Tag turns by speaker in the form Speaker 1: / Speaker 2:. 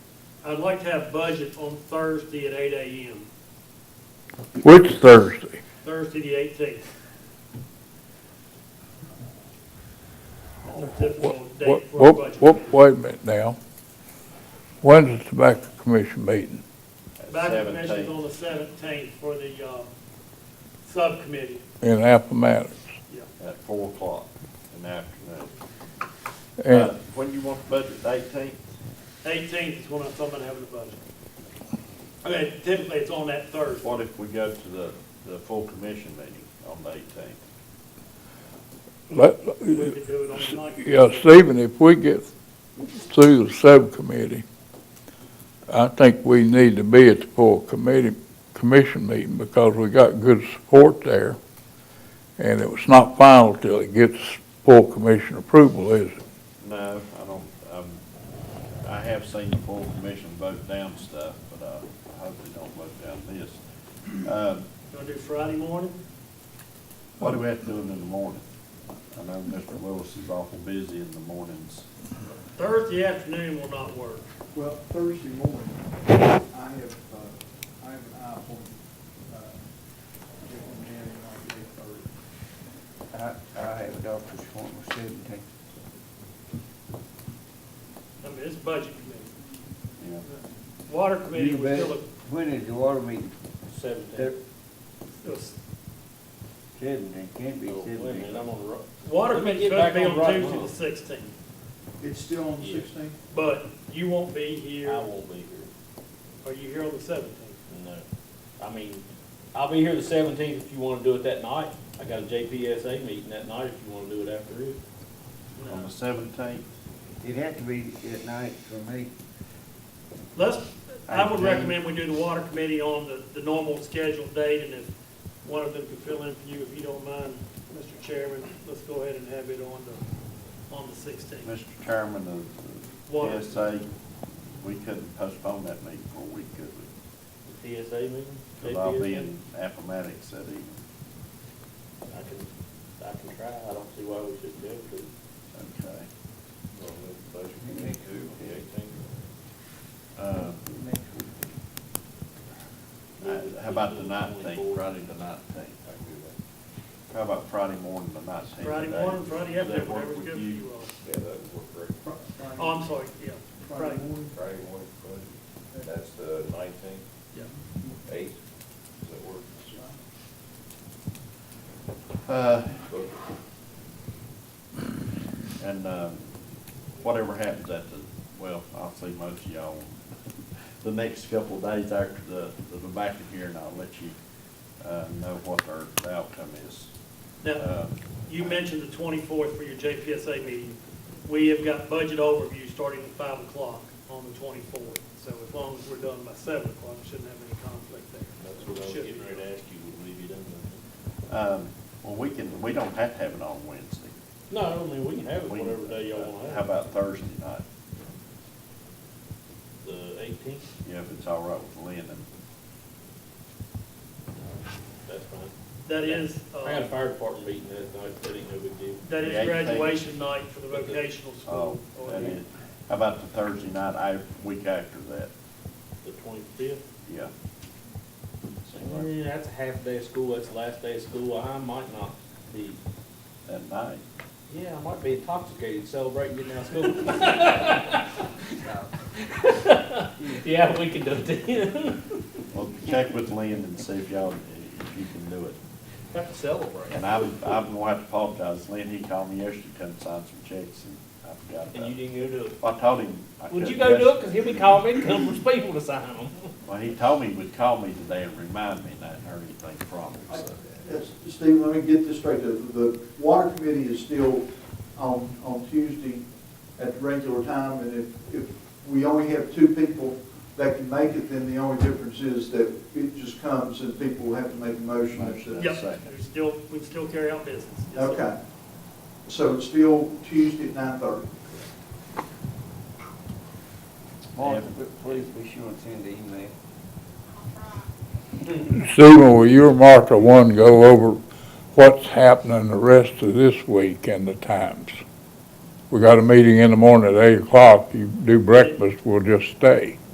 Speaker 1: I'd like to have budget on Thursday at eight AM,
Speaker 2: Which Thursday?
Speaker 1: Thursday the eighteenth. That's a typical
Speaker 2: Whoop,
Speaker 1: date for a
Speaker 2: whoop,
Speaker 1: budget.
Speaker 2: whoop,
Speaker 1: meeting.
Speaker 2: wait a minute now. When's the tobacco commission meeting?
Speaker 1: Budget commission's on the seventeenth for the, uh, subcommittee,
Speaker 2: In Appomattox.
Speaker 1: yeah.
Speaker 3: at four o'clock in the afternoon. Uh,
Speaker 2: And
Speaker 3: When you want the budget, eighteenth?
Speaker 1: Eighteenth is when I'm talking about having a budget. I mean, typically it's on that Thursday.
Speaker 3: What if we go to the, the full commission meeting on the eighteenth?
Speaker 2: let,
Speaker 1: We could do it on the ninth.
Speaker 2: yeah, Stephen, if we get through the subcommittee, I think we need to be at the full committee, commission meeting because we got good support there. And it was not final till it gets full commission approval, is it?
Speaker 3: No, I don't, um, I have seen the full commission vote down stuff, but uh, I hope they don't vote down this. Um,
Speaker 1: Gonna do Friday morning?
Speaker 3: What do we have to do in the morning? I know Mr. Willis is awful busy in the mornings.
Speaker 1: Thursday afternoon will not work.
Speaker 4: Well, Thursday morning, I have, uh, I have an eye appointment, uh, with Mary like eight thirty.
Speaker 5: I, I have a doctor's appointment with seventeen.
Speaker 1: I mean, it's budget committee.
Speaker 3: Yeah.
Speaker 1: Water committee
Speaker 5: You
Speaker 1: was
Speaker 5: bet.
Speaker 1: still,
Speaker 5: When is the water meeting?
Speaker 6: Seventeen.
Speaker 5: Thir-
Speaker 1: a- it was-
Speaker 5: Seventeen, can't be
Speaker 6: Oh, wait a minute,
Speaker 5: seventeen.
Speaker 6: I'm on the road.
Speaker 1: water
Speaker 6: Let me
Speaker 1: committee
Speaker 6: get
Speaker 1: could
Speaker 6: back
Speaker 1: be
Speaker 6: on
Speaker 1: on
Speaker 6: right
Speaker 1: Tuesday
Speaker 6: now.
Speaker 1: the sixteenth,
Speaker 4: It's still on the
Speaker 6: Yeah.
Speaker 4: sixteenth?
Speaker 1: but you won't be
Speaker 6: I
Speaker 1: here,
Speaker 6: won't be here,
Speaker 1: are you here on the seventeenth?
Speaker 6: no. I mean, I'll be here the seventeenth if you wanna do it that night. I got a JPSA meeting that night if you wanna do it after it.
Speaker 3: On the seventeenth,
Speaker 5: It had to be at night for me.
Speaker 1: Let's, I would
Speaker 5: Eighteenth.
Speaker 1: recommend we do the water committee on the, the normal scheduled date, and if one of them could fill in for you, if you don't mind, Mr. Chairman, let's go ahead and have it on the, on the sixteenth.
Speaker 3: Mr. Chairman of
Speaker 1: Water.
Speaker 3: the PSA, we couldn't postpone that meeting for a week, could we?
Speaker 6: The PSA meeting?
Speaker 3: Because I'll be
Speaker 6: JPSA?
Speaker 3: in Appomattox that evening.
Speaker 6: I can, I can try, I don't see why we shouldn't be able to.
Speaker 3: Okay. Mm-hmm.
Speaker 5: committee
Speaker 3: Uh, I- uh, How about the nineteenth, Friday the nineteenth? How about Friday morning, the nineteenth?
Speaker 1: Friday morning, Friday afternoon, whatever's good for you
Speaker 7: Yeah, that would work great.
Speaker 4: Fri- Friday-
Speaker 1: all. Oh, I'm sorry, yeah,
Speaker 4: Friday
Speaker 1: Friday,
Speaker 4: morning,
Speaker 7: Friday morning, Friday, that's the nineteenth,
Speaker 1: yeah.
Speaker 7: eighth, does that work?
Speaker 3: Uh,
Speaker 7: Look,
Speaker 3: and, um, whatever happens at the, well, I'll see most of y'all the next couple of days after the, the tobacco hearing, I'll let you, uh, know what our outcome is.
Speaker 1: Now,
Speaker 3: Uh,
Speaker 1: You mentioned the twenty-fourth for your JPSA meeting. We have got budget overview starting at five o'clock on the twenty-fourth. So as long as we're done by seven o'clock, we shouldn't have any conflict there.
Speaker 6: That's what I was
Speaker 1: Should be.
Speaker 6: getting ready to ask you, would we be done with
Speaker 3: Um, well, we can, we don't have to have it on Wednesday.
Speaker 6: it? No, I mean, we can have it
Speaker 3: We- uh,
Speaker 6: whatever day y'all wanna
Speaker 3: How
Speaker 6: have, it.
Speaker 3: about Thursday night?
Speaker 6: the eighteenth,
Speaker 3: You know, if it's all right with Lynn and,
Speaker 6: that's fine.
Speaker 1: That is,
Speaker 6: I got a
Speaker 1: uh,
Speaker 6: fire department meeting that night, that ain't no big deal.
Speaker 1: that
Speaker 3: The
Speaker 1: is
Speaker 3: 18th.
Speaker 1: graduation night for the vocational
Speaker 3: oh,
Speaker 1: school.
Speaker 3: and then, how about the Thursday night, I, week after that?
Speaker 6: The twenty-fifth?
Speaker 3: Yeah. Seem like
Speaker 6: Yeah, that's a half day of school, that's the last day of school, I might not be,
Speaker 3: That night.
Speaker 6: yeah, I might be intoxicated celebrating getting out of school. Yeah, we can do it.
Speaker 3: Well, check with Lynn and see if y'all, if you can do it.
Speaker 6: Have to celebrate.
Speaker 3: And I'm, I'm going to apologize, Lynn, he called me yesterday, come sign some checks and I forgot
Speaker 6: And
Speaker 3: about
Speaker 6: you
Speaker 3: it.
Speaker 6: didn't go do it.
Speaker 3: I told him. I
Speaker 6: Would you
Speaker 3: couldn't
Speaker 6: go do it?
Speaker 3: yesterday.
Speaker 6: Cause he'll be calling me to come for people to sign them.
Speaker 3: Well, he told me he would call me today and remind me, and I hadn't heard anything from him, so.
Speaker 4: Yes, Steve, let me get this straight, the, the water committee is still on, on Tuesday at the regular time, and if, if we only have two people that can make it, then the only difference is that it just comes and people have to make a motion or something.
Speaker 1: Yep,
Speaker 3: second.
Speaker 1: there's still, we can still carry out business. Yes, sir.
Speaker 4: Okay, so it's still Tuesday at nine thirty?
Speaker 5: Martha, please be sure and send the email.
Speaker 2: Stephen, will you or Martha, one, go over what's happening the rest of this week and the times? We got a meeting in the morning at eight o'clock. You do breakfast, we'll just stay.